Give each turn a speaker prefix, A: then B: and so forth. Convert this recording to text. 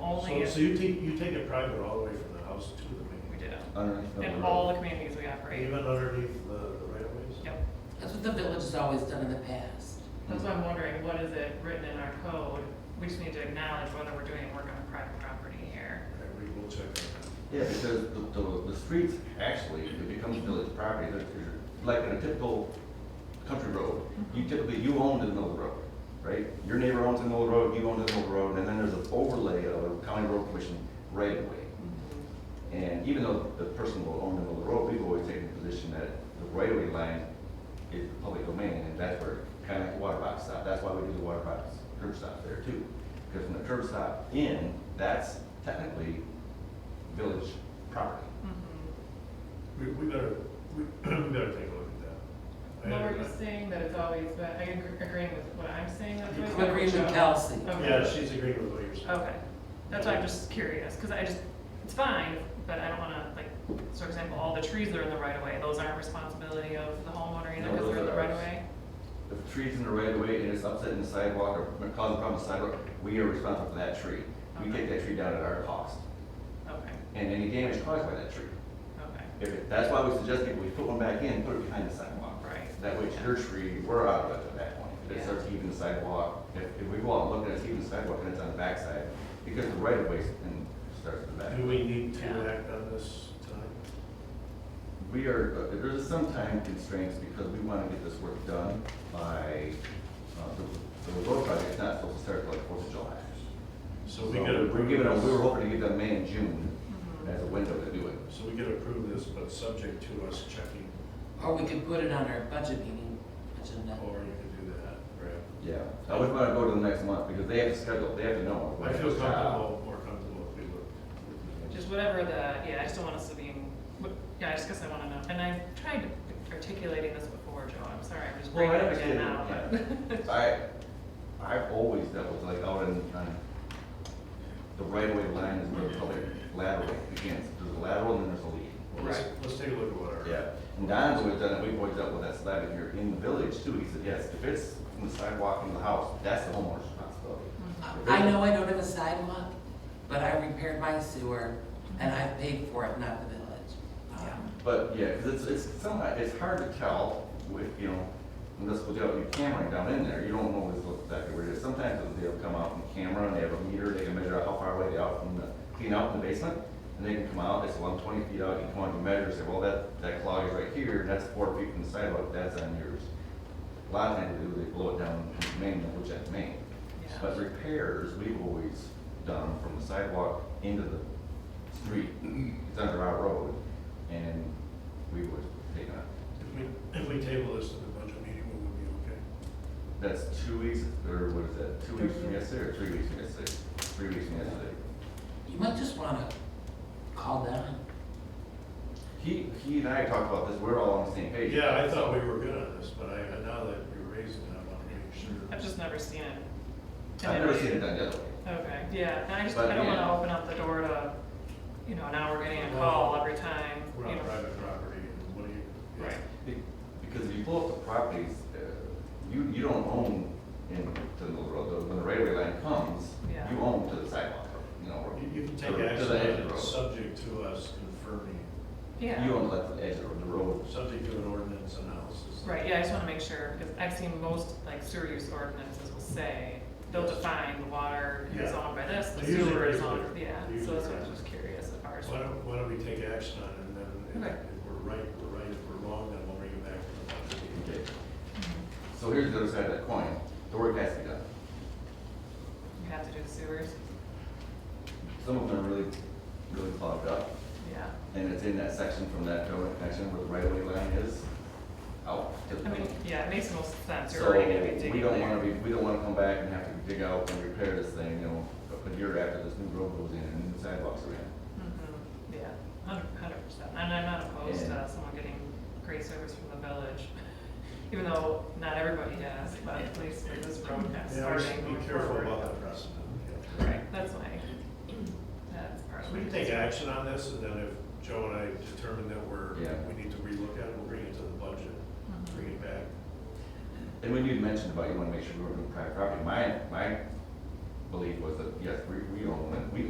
A: So,
B: actually,
A: so you take, you take it private all the way from the house to the
B: we
A: main,
B: do.
C: underneath the
B: In
C: road.
B: all the communities we operate.
A: even underneath the, the right of ways?
B: Yep.
D: That's what the village has always done in the past.
B: That's why I'm wondering, what is it written in our code? We just need to acknowledge whether we're doing work on a private property here.
A: Okay, we will check on
C: Yeah, because the, the, the streets, actually, it becomes village property, They're- they're- like in a typical country road, you typically, you own the middle of the road, right? Your neighbor owns the middle of the road, you own the middle of the road, and then there's an overlay of a county road commission right away. And even though the person will own the middle of the road, we've always taken the position that the right of way line is the public domain, and that's where, kind of like the water box stop, that's why we do the water box curb stop there too. Because from the curb stop in, that's technically village property.
A: that. We, we better, we, we better take a look at that. I
B: No, we're
A: under-
B: just saying that it's always, but I agree- agreeing with what I'm saying. that's
A: You
B: what
D: I'm agreeing with Kelsey.
B: Okay.
A: Yeah, she's agreeing with what you're saying.
B: Okay, that's why I'm just curious, because I just, it's fine, but I don't want to, like, so for example, all the trees that are in the right of way, those aren't responsibility of the homeowner either,
C: No,
B: because they're in
C: those
B: the
C: are
B: right of
C: ours.
B: way?
C: If the tree's in the right of way and it's upsetting the sidewalk or causing a problem with the sidewalk, we are responsible for that tree. We
B: Okay.
C: take that tree down at our cost
B: Okay,
C: and any damage caused by that tree.
B: okay,
C: If, it- that's why we suggest people, we put one back in, put it behind the sidewalk.
B: right.
C: That way, it's your tree, we're out of it at that point. If it
B: Yeah.
C: starts heaving the sidewalk, if, if we go out and look at it, it's heaving the sidewalk and it's on the backside, because the right of way and starts at the back.
A: Do we need
B: Oh. Yeah.
A: to act on this tonight?
C: We are, uh, there's some time constraints because we want to get this work done by, uh, the, the road project's not supposed to start till like Fourth of July.
A: So we gotta.
C: We're
A: approve
C: giving them, we were
A: this-
C: hoping to give them May and June
B: Mhm.
C: as a window to do it.
A: So we could approve this, but subject to us checking,
D: Or we could put it on our budget meeting agenda.
A: or oh, you could do that, right?
C: Yeah, I wouldn't want to go to the next month because they have to schedule, they have to know.
A: I feel comfortable, more comfortable if we look.
B: Just whatever the, yeah, I just don't want us to be, what- yeah, I just guess I want to know, and I've tried articulating this before, Joe, I'm sorry, I'm just
C: Well,
B: bringing
C: I
B: it in
C: understand,
B: now. but-
C: yeah. I, I've always dealt with like out in, on the right of way line is where the public lateral begins. There's a lateral and then there's a lead.
A: Well, let's,
B: Right.
A: let's take a look at what our.
C: Yeah, and Don's always done it, we've always dealt with that slab in here, in the village too, he said, yes, if it's from the sidewalk in the house, that's the homeowner's responsibility.
D: I- I know I don't have a sidewalk, but I repaired my sewer and I paid for it, not the village. Um,
C: But, yeah, because it's, it's somewhat, it's hard to tell with, you know, unless we got your camera down in there, you don't know what's exactly where it is. Sometimes they'll come out from camera and they have a meter, they can measure out how far away they are from the, clean out in the basement, and they can come out, it's one twenty feet out, you can come out and measure, and say, well, that, that clog is right here, that's four feet from the sidewalk, that's on yours. A lot of times they do, they blow it down from the main, which that's main.
B: Yeah.
C: But repairs, we've always done from the sidewalk into the street, it's under our road, and we would take it.
A: If we, if we table this to the budget meeting, we would be okay.
C: That's two weeks, or what is that, two weeks from yesterday, or three weeks from yesterday? Three weeks from yesterday.
D: You might just wanna call Don.
C: He, he and I talked about this, we're all on the same page.
A: Yeah, I thought we were good on this, but I, now that you're raising it, I want to make sure.
B: I've just never seen it.
C: I've never seen it done the other way.
B: Okay, yeah, and I just,
C: But,
B: I don't want to
C: yeah.
B: open up the door to, you know, now we're getting a call every time, you
A: We're on
B: know.
A: private property and what do you?
B: Right,
C: Be- Because if you pull up the properties, uh, you, you don't own in the middle of the road, when the right of way line comes,
B: Yeah.
C: you own to the sidewalk, you know, or
A: You, you can
C: to
A: take
C: the edge of the
A: action,
C: road.
A: that's subject to us confirming,
C: You
B: yeah,
C: own like the edge of the road.
A: subject to an ordinance analysis.
B: right, yeah, I just want to make sure, because I've seen most, like, sewer use ordinances will say, they'll define the water is
A: Yeah.
B: owned by this, the
A: They're usually
B: sewer is
A: pretty
B: owned,
A: clear.
B: yeah,
A: They're
B: so
A: usually
B: that's why I
A: pretty
B: was just curious as far as.
A: Why don't, why don't we take action on it and then if-
B: Okay.
A: if we're right, we're right. If we're wrong, then we'll bring it back to the budget meeting.
C: Okay.
B: Mm-hmm.
C: So here's the other side of that coin, the work has to be done.
B: You have to do the sewers,
C: Some of them are really, really clogged up,
B: yeah,
C: and it's in that section from that railroad connection where the right of way line is, out to the.
B: I mean, yeah, it makes most sense, you're
C: So
B: already going to be
C: we
B: digging
C: don't wanna
B: there.
C: be, we don't wanna come back and have to dig out and repair this thing, you know, a year after this new road goes in and new sidewalks are in.
B: Mhm, Yeah, hundred, hundred percent, and I'm not opposed
C: Yeah.
B: to someone getting great service from the village, even though not everybody has, but at least with this road has
A: Yeah, we
B: starting.
A: should be
B: moving
A: careful
B: forward.
A: about that precedent. yeah.
B: Right, that's my, that's part
A: So
B: of my.
A: we can take action on this and then if Joe and I determine that we're,
C: Yeah.
A: we need to relook at it, we'll bring it to the budget,
B: Mhm.
A: bring it back.
C: And when you mentioned about you wanna make sure we we're doing private property, my, my belief was that, yes, we, we own, we